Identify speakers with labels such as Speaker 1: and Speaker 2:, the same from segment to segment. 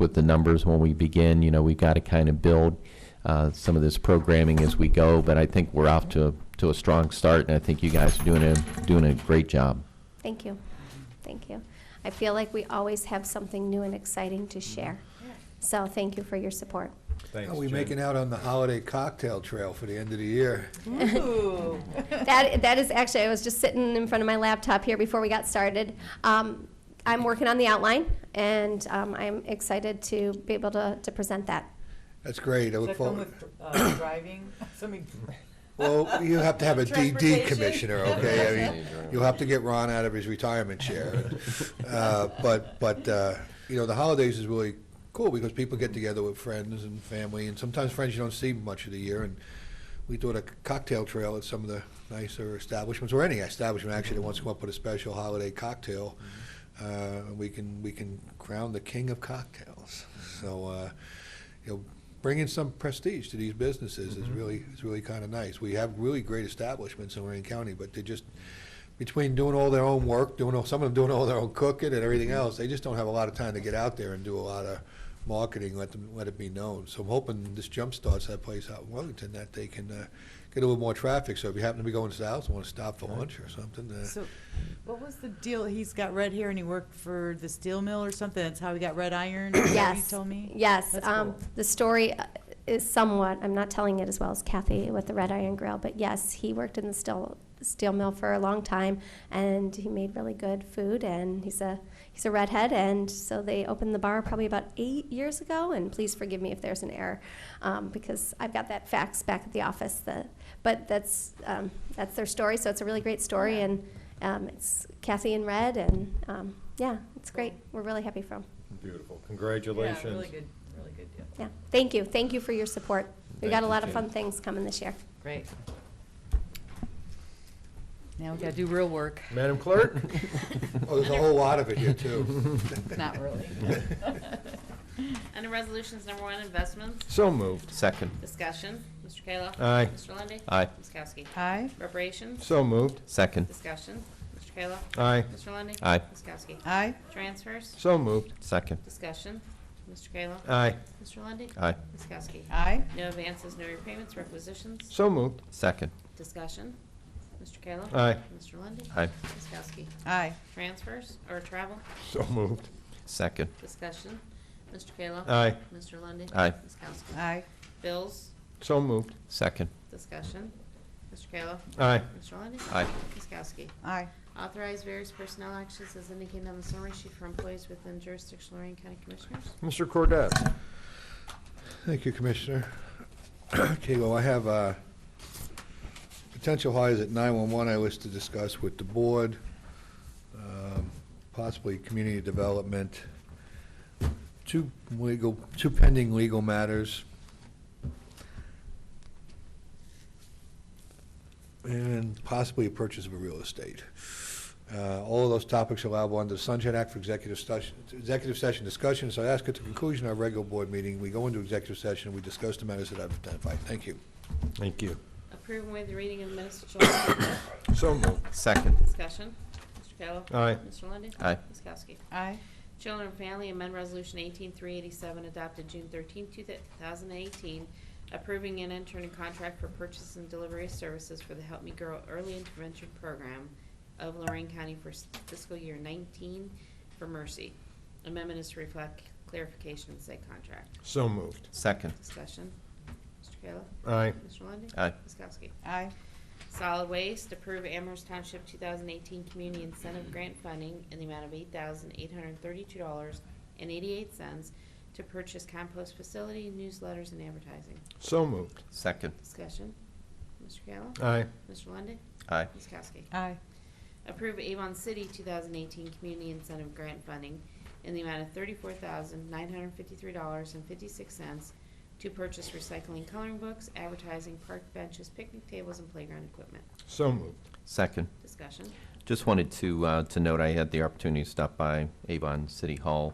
Speaker 1: with the numbers when we begin. You know, we've got to kind of build uh, some of this programming as we go, but I think we're off to, to a strong start, and I think you guys are doing a, doing a great job.
Speaker 2: Thank you. Thank you. I feel like we always have something new and exciting to share. So thank you for your support.
Speaker 3: Thanks,
Speaker 4: How are we
Speaker 3: Jen.
Speaker 4: making out on the holiday cocktail trail for the end of the year?
Speaker 5: Ooh.
Speaker 2: That, that is actually, I was just sitting in front of my laptop here before we got started. Um, I'm working on the outline, and um, I'm excited to be able to, to present that.
Speaker 4: That's great, I
Speaker 5: Does
Speaker 4: look
Speaker 5: that come
Speaker 4: forward.
Speaker 5: with uh, driving? Something,
Speaker 4: Well, you have to have a DD
Speaker 5: Transportation.
Speaker 4: commissioner, okay? I mean, you'll have to get Ron out of his retirement chair. Uh, But, but, uh, you know, the holidays is really cool because people get together with friends and family and sometimes friends you don't see much of the year. And we do a cocktail trail at some of the nicer establishments, or any establishment actually that wants to come up with a special holiday cocktail. Uh, and we can, we can crown the king of cocktails. So, uh, you know, bringing some prestige to these businesses is really, is really kind of nice. We have really great establishments in Lorraine County, but they just, between doing all their own work, doing all, some of them doing all their own cooking and everything else, they just don't have a lot of time to get out there and do a lot of marketing, let them, let it be known. So I'm hoping this jump starts that place out in Wellington, that they can uh, get a little more traffic. So if you happen to be going south and want to stop for lunch or something, uh,
Speaker 5: so, what was the deal? He's got red hair and he worked for the steel mill or something? That's how he got red iron? is that what
Speaker 2: Yes.
Speaker 5: You told me?
Speaker 2: Yes.
Speaker 5: That's
Speaker 2: um,
Speaker 5: cool.
Speaker 2: The story uh, is somewhat, I'm not telling it as well as Kathy with the Red Iron Grill, but yes, he worked in the steel, steel mill for a long time, and he made really good food, and he's a, he's a redhead, and so they opened the bar probably about eight years ago, and please forgive me if there's an error, um, because I've got that fax back at the office, that, but that's, um, that's their story, so it's a really great story, and um, it's Kathy in red, and, um, yeah, it's great. We're really happy for him.
Speaker 3: Beautiful.
Speaker 5: Yeah,
Speaker 3: Congratulations.
Speaker 5: really good, really good deal.
Speaker 2: Yeah, thank you, thank you for your support. We got
Speaker 3: Thank
Speaker 2: a
Speaker 3: you,
Speaker 2: lot of
Speaker 3: Jane.
Speaker 2: fun things coming this year.
Speaker 5: Great. Now we gotta do real work,
Speaker 3: Madam Clerk?
Speaker 4: oh, there's a whole lot of it here too.
Speaker 5: not really.
Speaker 6: Under Resolutions Number One, Investments,
Speaker 3: So moved.
Speaker 1: Second.
Speaker 6: Discussion, Mr. Kayla.
Speaker 3: Aye.
Speaker 6: Mr. Lundey.
Speaker 1: Aye.
Speaker 6: Ms. Kowski.
Speaker 5: Aye,
Speaker 6: Reparations,
Speaker 3: So moved.
Speaker 1: Second.
Speaker 6: Discussion, Mr. Kayla.
Speaker 3: Aye.
Speaker 6: Mr. Lundey.
Speaker 1: Aye.
Speaker 6: Ms. Kowski.
Speaker 5: aye,
Speaker 6: Transfers,
Speaker 3: So moved.
Speaker 1: Second.
Speaker 6: Discussion, Mr. Kayla.
Speaker 3: Aye.
Speaker 6: Mr. Lundey.
Speaker 1: Aye.
Speaker 6: Ms. Kowski.
Speaker 5: aye,
Speaker 6: No advances, no repayments, requisitions,
Speaker 3: So moved.
Speaker 1: Second.
Speaker 6: Discussion, Mr. Kayla.
Speaker 3: Aye.
Speaker 6: Mr. Lundey.
Speaker 1: Aye.
Speaker 6: Ms. Kowski.
Speaker 5: aye,
Speaker 6: Transfers, or travel,
Speaker 3: So moved.
Speaker 1: Second.
Speaker 6: Discussion, Mr. Kayla.
Speaker 3: Aye.
Speaker 6: Mr. Lundey.
Speaker 1: Aye.
Speaker 6: Ms. Kowski.
Speaker 5: aye,
Speaker 6: Bills,
Speaker 3: So moved.
Speaker 1: Second.
Speaker 6: Discussion, Mr. Kayla.
Speaker 3: Aye.
Speaker 6: Mr. Lundey.
Speaker 1: Aye.
Speaker 6: Ms. Kowski.
Speaker 5: aye,
Speaker 6: Authorize various personnel actions as indicated on the summary sheet for employees within jurisdiction Lorraine County Commissioners.
Speaker 3: Mr. Cordez?
Speaker 4: Thank you, Commissioner. Okay, well, I have uh, potential hires at 911 I wish to discuss with the board, um, possibly community development, two legal, two pending legal matters. And possibly a purchase of a real estate. Uh, All of those topics are allowable under the Sunshine Act for executive session, executive session discussion. So I ask at the conclusion of our regular board meeting, we go into executive session, we discuss the matters that I've identified. Thank you.
Speaker 3: Thank you.
Speaker 6: Approve and waive the reading of minutes of July 25th.
Speaker 3: So moved.
Speaker 1: Second.
Speaker 6: Discussion. Mr. Kayla.
Speaker 3: Aye.
Speaker 6: Mr. Lundy.
Speaker 1: Aye.
Speaker 6: Ms. Kowski.
Speaker 5: aye,
Speaker 6: Children and Family Amendment Resolution 18387 adopted June 13, 2018, approving an intern contract for purchase and delivery of services for the Help Me Grow Early Intervention Program of Lorraine County for s- fiscal year 19 for Mercy. Amendment is to reflect clarification in said contract.
Speaker 3: So moved.
Speaker 1: Second.
Speaker 6: Discussion. Mr. Kayla?
Speaker 3: Aye.
Speaker 6: Mr. Lundey?
Speaker 1: Aye.
Speaker 6: Ms. Kowski?
Speaker 5: aye,
Speaker 6: Solid Waste, approve Amherst Township 2018 Community Incentive Grant Funding in the amount of $8,832.88 to purchase compost facility, newsletters, and advertising.
Speaker 3: So moved.
Speaker 1: Second.
Speaker 6: Discussion. Mr. Kayla?
Speaker 3: Aye.
Speaker 6: Mr. Lundy,
Speaker 1: Aye.
Speaker 6: Ms. Kowski?
Speaker 5: aye,
Speaker 6: Approve Avon City 2018 Community Incentive Grant Funding in the amount of $34,953.56 to purchase recycling coloring books, advertising, park benches, picnic tables, and playground equipment.
Speaker 3: So moved.
Speaker 1: Second.
Speaker 6: Discussion.
Speaker 1: Just wanted to, uh, to note, I had the opportunity to stop by Avon City Hall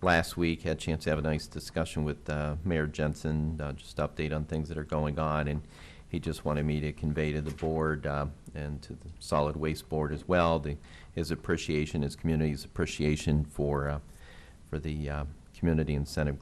Speaker 1: last week, had a chance to have a nice discussion with, uh, Mayor Jensen, uh, just update on things that are going on, and he just wanted me to convey to the board, uh, and to the Solid Waste Board as well, the, his appreciation, his community's appreciation for, uh, for the, uh, Community Incentive Grant